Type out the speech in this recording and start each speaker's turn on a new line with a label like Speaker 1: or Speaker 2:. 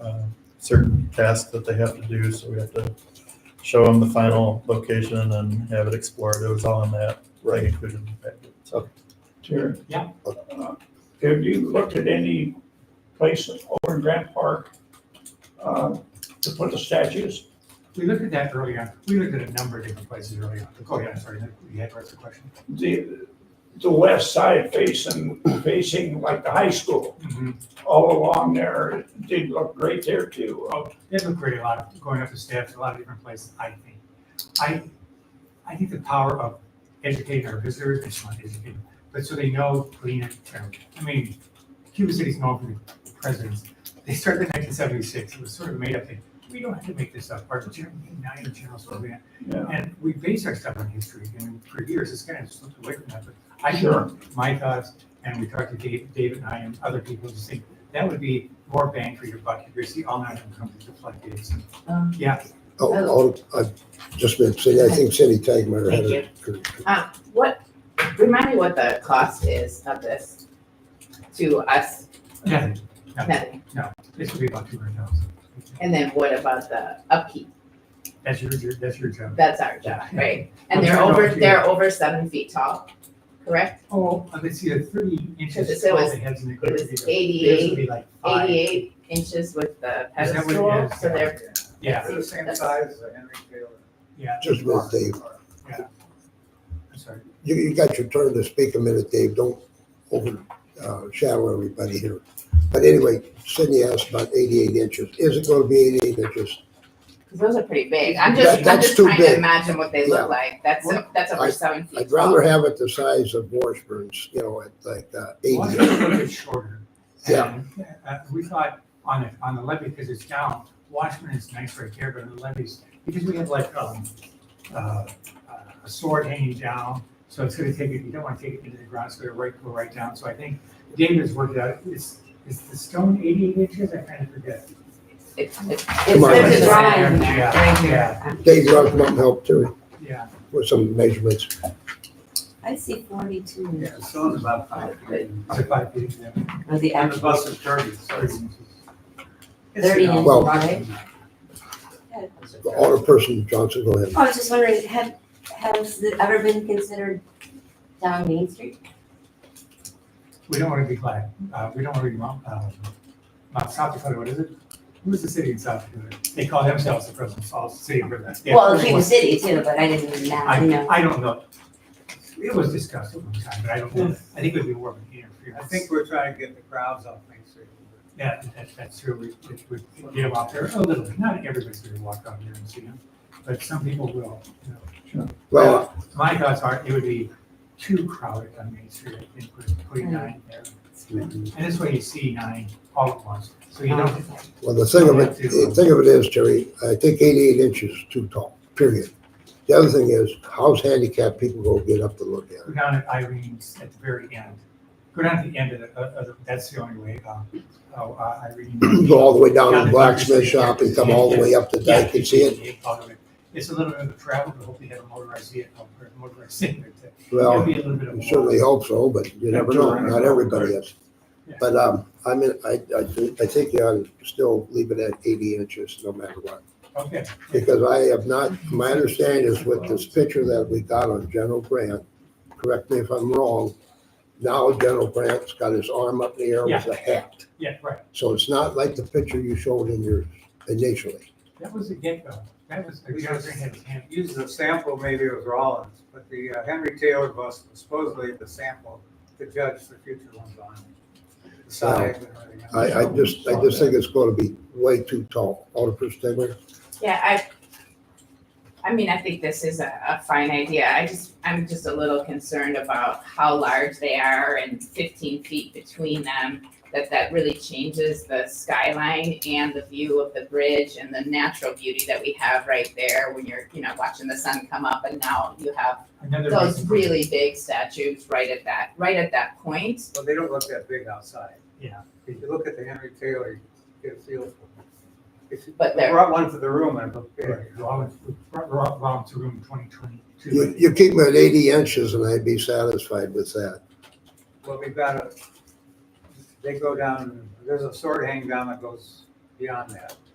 Speaker 1: um, certain tasks that they have to do, so we have to show them the final location and have it explored. It was all in that, right included in the packet. So
Speaker 2: Sure.
Speaker 3: Yeah.
Speaker 2: Uh, Have you looked at any place over in Grant Park uh, to put the statues?
Speaker 3: We looked at that earlier. We looked at a number of different places earlier. Go ahead, I'm sorry, you had asked the question.
Speaker 2: The, the west side facing, facing like the high school,
Speaker 3: Mhm.
Speaker 2: all along there, it did look great there too. Uh,
Speaker 3: Oh, They look great, a lot of, going up the steps, a lot of different places, I think. I, I think the power of educating our visitors, it's not educating, but so they know clean and terrible. I mean, Cuba City's known for the presidents. They started in nineteen seventy-six. It was sort of a made-up thing. We don't have to make this up. Our general, now general survey,
Speaker 2: yeah.
Speaker 3: And we base our stuff on history, and for years, it's kind of slipped away from that, but I
Speaker 2: Sure.
Speaker 3: know my thoughts, and we talked to Dave, David and I and other people, just think, that would be more bang for your buck, if you see all night and come to the floodgates.
Speaker 4: Um,
Speaker 3: Yeah,
Speaker 5: Oh, oh, I've just been saying, I think Cindy Tagmeyer had
Speaker 4: Thank
Speaker 5: it.
Speaker 4: Uh, what, remind me what the cost is of this to us,
Speaker 3: nothing, nothing,
Speaker 4: nothing.
Speaker 3: this would be about two hundred thousand.
Speaker 4: And then what about the upkeep?
Speaker 3: That's your, your- that's your job.
Speaker 4: That's our job, right? And
Speaker 3: I'm
Speaker 4: they're
Speaker 3: sure
Speaker 4: over,
Speaker 3: not you.
Speaker 4: they're over seven feet tall, correct?
Speaker 3: Oh, uh, let's see, a thirty inches
Speaker 4: Because it
Speaker 3: tall,
Speaker 4: was-
Speaker 3: they had some.
Speaker 4: It was
Speaker 3: This would
Speaker 4: eighty-eight,
Speaker 3: be like five.
Speaker 4: eighty-eight inches with the
Speaker 3: Is that what it
Speaker 4: pedestal,
Speaker 3: is?
Speaker 4: so they're,
Speaker 3: Yeah,
Speaker 6: They're the same size as a Henry Taylor.
Speaker 3: yeah,
Speaker 5: Just about, Dave.
Speaker 3: I'm sorry.
Speaker 5: You, you got your turn to speak a minute, Dave. Don't overshadow everybody here. But anyway, Cindy asked about eighty-eight inches. Is it gonna be eighty-eight inches?
Speaker 4: 'cause those are pretty big. I'm
Speaker 5: That-
Speaker 4: just, I'm
Speaker 5: that's
Speaker 4: just
Speaker 5: too
Speaker 4: trying to
Speaker 5: big.
Speaker 4: imagine what they
Speaker 5: Yeah.
Speaker 4: look like. That's, that's over seven feet
Speaker 5: I'd
Speaker 4: tall.
Speaker 5: rather have it the size of Washburn's, you know, at like uh,
Speaker 3: Well,
Speaker 5: eighty.
Speaker 3: it's a little bit shorter.
Speaker 5: Yeah.
Speaker 3: And, uh, we thought on the, on the levee, because it's down, Watchman is nice right there, but on the levees, because we have like, um, uh, a sword hanging down, so it's gonna take it, you don't wanna take it into the ground, it's gonna right, go right down, so I think David's worked out, it's, is the stone eighty-eight inches, I kind of forget.
Speaker 4: It's, it's,
Speaker 5: Come on.
Speaker 4: there's a drawing in there,
Speaker 3: Yeah,
Speaker 4: right here.
Speaker 5: Dave Rock might help too
Speaker 3: Yeah,
Speaker 5: with some measurements.
Speaker 7: I see forty-two
Speaker 6: Yeah, the stone's about five feet.
Speaker 3: it's a five feet, yeah.
Speaker 7: of the
Speaker 6: And the
Speaker 7: actual
Speaker 6: bus is thirty, so
Speaker 3: thirty
Speaker 6: it's.
Speaker 3: inches.
Speaker 6: it's, you
Speaker 7: thirty
Speaker 6: know,
Speaker 7: inch
Speaker 5: Well-
Speaker 7: wide.
Speaker 5: Alderperson Johnson, go ahead.
Speaker 7: I was just wondering, have, has it ever been considered down Main Street?
Speaker 3: We don't wanna be glad, uh, we don't wanna be Mount, uh, Mount South Dakota, what is it? Who's the city in South Dakota? They call themselves the President's Falls City. of Riverside. Yeah,
Speaker 7: Well,
Speaker 3: Prince
Speaker 7: Cuba
Speaker 3: was-
Speaker 7: City too, but I didn't even know, you
Speaker 3: I,
Speaker 7: know.
Speaker 3: I don't know. It was discussed at one time, but I don't know. I think it would be more of an interference.
Speaker 6: I think we're trying to get the crowds off Main Street.
Speaker 3: Yeah, that, that's true. We, we- we get them out there a little bit. Not everybody's gonna walk out here and see them, but some people will, you know.
Speaker 5: Well,
Speaker 3: My thoughts are, it would be too crowded on Main Street, I think, with putting nine there. And this way you see nine all at once, so you don't,
Speaker 5: well, the thing of it, the thing of it is, Terry, I think eighty-eight inches is too tall, period. The other thing is, how's handicapped people gonna get up to look at it?
Speaker 3: go down at Irene's at the very end. Go down to the end of the, of, of, that's the only way, um, oh, uh, Irene.
Speaker 5: go all the way down to the blacksmith shop and come all the way up the dike and see it.
Speaker 3: it. It's a little bit of a travel, but hopefully they have a motorized vehicle, or a motorized thing. but that- It'll
Speaker 5: Well,
Speaker 3: be a little bit of a
Speaker 5: I
Speaker 3: walk.
Speaker 5: certainly hope so, but you never know, not everybody is.
Speaker 3: Yeah.
Speaker 5: But, um, I mean, I, I, thi- I think you ought to still leave it at eighty inches no matter what.
Speaker 3: Okay.
Speaker 5: Because I have not, my understanding is with this picture that we got on General Grant, correct me if I'm wrong, now General Grant's got his arm up in the air with a hat.
Speaker 3: Yeah, right.
Speaker 5: So it's not like the picture you showed in your initially.
Speaker 3: That was a get-go. That was, the
Speaker 6: We
Speaker 3: John
Speaker 6: just
Speaker 3: Green had his hand.
Speaker 6: used a sample, maybe it was Rollins, but the uh, Henry Taylor bus was supposedly the sample to judge the future ones on. The size and everything else.
Speaker 5: I, I just, I just think it's gonna be way too tall. Alderman Stegler?
Speaker 4: Yeah, I, I mean, I think this is a, a fine idea. I just, I'm just a little concerned about how large they are and fifteen feet between them. That that really changes the skyline and the view of the bridge and the natural beauty that we have right there when you're, you know, watching the sun come up and now you have
Speaker 3: Another
Speaker 4: those
Speaker 3: reason-
Speaker 4: really big statues right at that, right at that point.
Speaker 6: Well, they don't look that big outside.
Speaker 3: Yeah.
Speaker 6: If you look at the Henry Taylor, you get a feel for it.
Speaker 4: But
Speaker 6: I
Speaker 4: they're-
Speaker 6: brought one to the room and looked at it.
Speaker 3: Right. Rollins, Rollins, Rollins Room twenty twenty-two.
Speaker 5: You, you keep them at eighty inches and I'd be satisfied with that.
Speaker 6: Well, we've got a, they go down, there's a sword hang down that goes beyond that.